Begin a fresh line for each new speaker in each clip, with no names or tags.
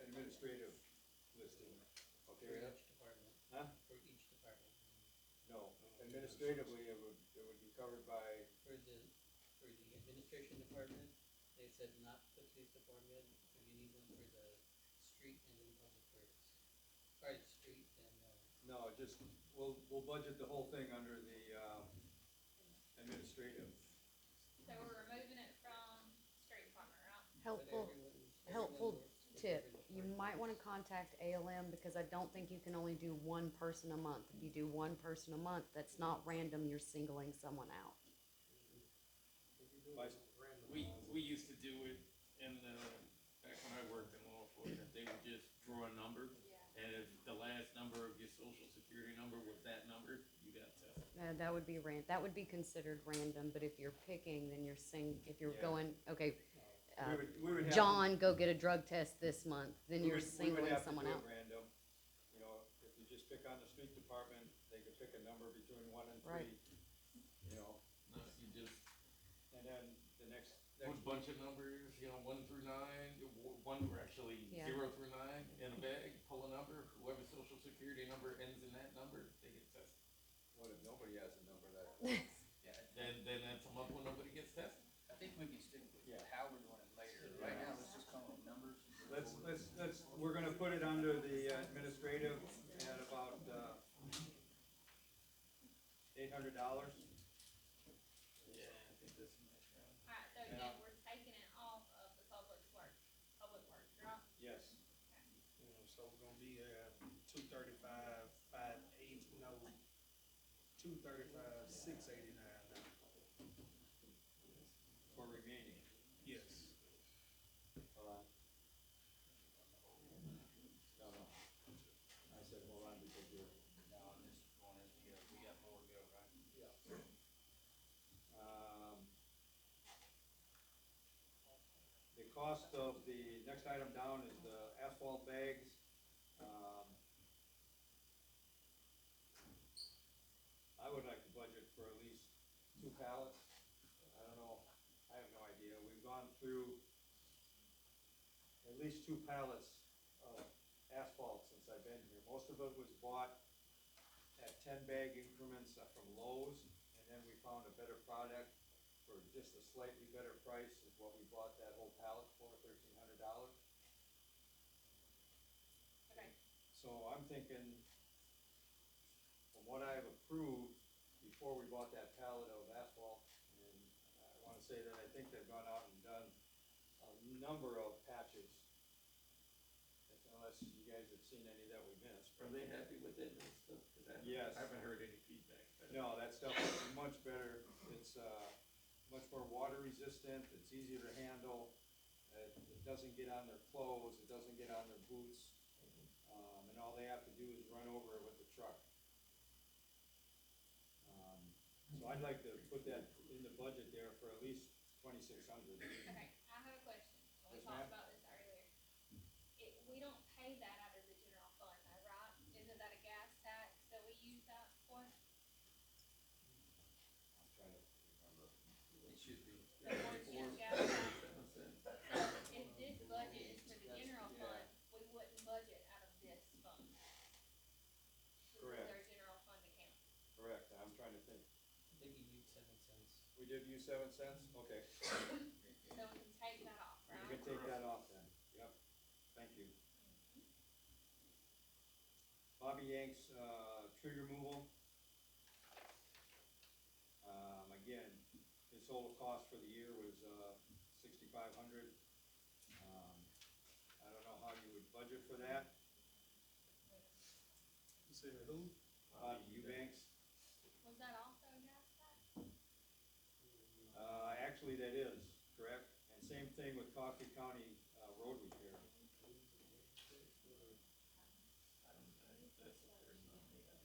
administrative listing,
Okay,
Fair
yeah.
enough.
each department,
huh?
for each department,
No, administratively, it would, it would be covered by,
for the, for the administration department, they said not the police department, if you need one for the street and then public works. Sorry, the street and, uh,
no, just, we'll, we'll budget the whole thing under the, um, administrative.
So we're removing it from street department, right?
but everyone,
Helpful
everyone
helpful
works with
tip,
every
you
department.
might wanna contact ALM because I don't think you can only do one person a month. If you do one person a month, that's not random, you're singling someone out.
Vice-
We, we used to do it in the, back when I worked in law enforcement, they would just draw a number.
Yeah.
And if the last number of your social security number was that number, you got to.
Uh, that would be ran, that would be considered random, but if you're picking, then you're sing, if you're
Yeah.
going,
We
okay, uh,
would, we would have. to-
John, go get a drug test this month, then
we would-
you're
We would
singling
have to
someone
do it
out.
random, you know, if you just pick on the street department, they could pick a number between one and three,
Right.
you know,
No, you just,
and then the next,
put a
next,
bunch of numbers, you know, one through nine, w- one, or actually
Yeah.
zero through nine in a bag, pull a number, whoever's social security number ends in that number, they get tested.
what if nobody has a number that, point?
Yeah,
Then, then that's a month when nobody gets tested.
I think we can stick with
Yeah.
how we're doing it later. Right now, let's just come up with numbers.
Let's, let's, let's, we're gonna put it under the administrative at about, uh, eight hundred dollars.
Yeah, I think
uh,
that's a nice round.
Alright, so
Yeah.
then we're taking it off of the public work, public work, right?
Yes.
You know, so we're gonna be, uh, two thirty-five, five eight, no, two thirty-five, six eighty-nine now.
For remaining.
Yes.
Hold on. No, no. I said hold on because you're,
No, I'm just going as we go. uh, We got more to go, right?
um, the cost of the, next item down is the asphalt bags. Um, I would like to budget for at least two pallets. I don't know, I have no idea. We've gone through at least two pallets of asphalt since I've been here. Most of it was bought at ten bag increments from Lowe's, and then we found a better product for just a slightly better price is what we bought that whole pallet for, thirteen hundred dollars.
Okay,
So I'm thinking, from what I've approved, before we bought that pallet of asphalt, and I wanna say that I think they've gone out and done a number of patches. Unless you guys have seen any that we missed.
Are they happy with it and stuff? 'Cause I-
Yes.
I haven't heard any feedback. but-
No, that stuff is much better, it's, uh, much more water resistant, it's easier to handle, it, it doesn't get on their clothes, it doesn't get on their boots. Um, and all they have to do is run over it with the truck. Um, so I'd like to put that in the budget there for at least twenty-six hundred.
okay, I have a question, we
Yes,
talked
ma'am.
about this earlier. It, we don't pay that out of the general fund, though, right? Isn't that a gas tax that we use that for?
I'm trying to
It should be.
The one cent gas tax, if this budget is for the general fund, we wouldn't budget out of this fund. This is
Correct.
our general fund account.
remember. Correct, I'm trying to think,
I think you need seven cents.
we did use seven cents, okay,
So we can take that off,
you
right?
can take that off then, yep, thank you. Bobby Yanks, uh, tree removal. Um, again, his total cost for the year was, uh, sixty-five hundred. Um, I don't know how you would budget for that,
You said who?
Bobby Eubanks,
Was that also a gas tax?
uh, actually that is, correct? And same thing with Coffee County, uh, road repair.
I don't know. That's- there's nothing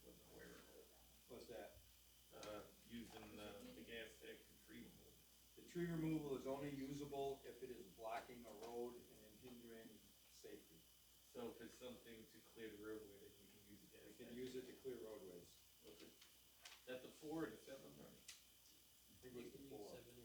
I Wasn't aware of it.
What's that?
Uh, using uh, the gas tech to treat them.
The tree removal is only usable if it is blocking a road and hindering safety.
So if it's something to clear the roadway, then you can use the gas
We can
tech.
use it to clear roadways.
Okay. Is that the four or the seven, or?
I think
You
it was
can
the
use
four.
seven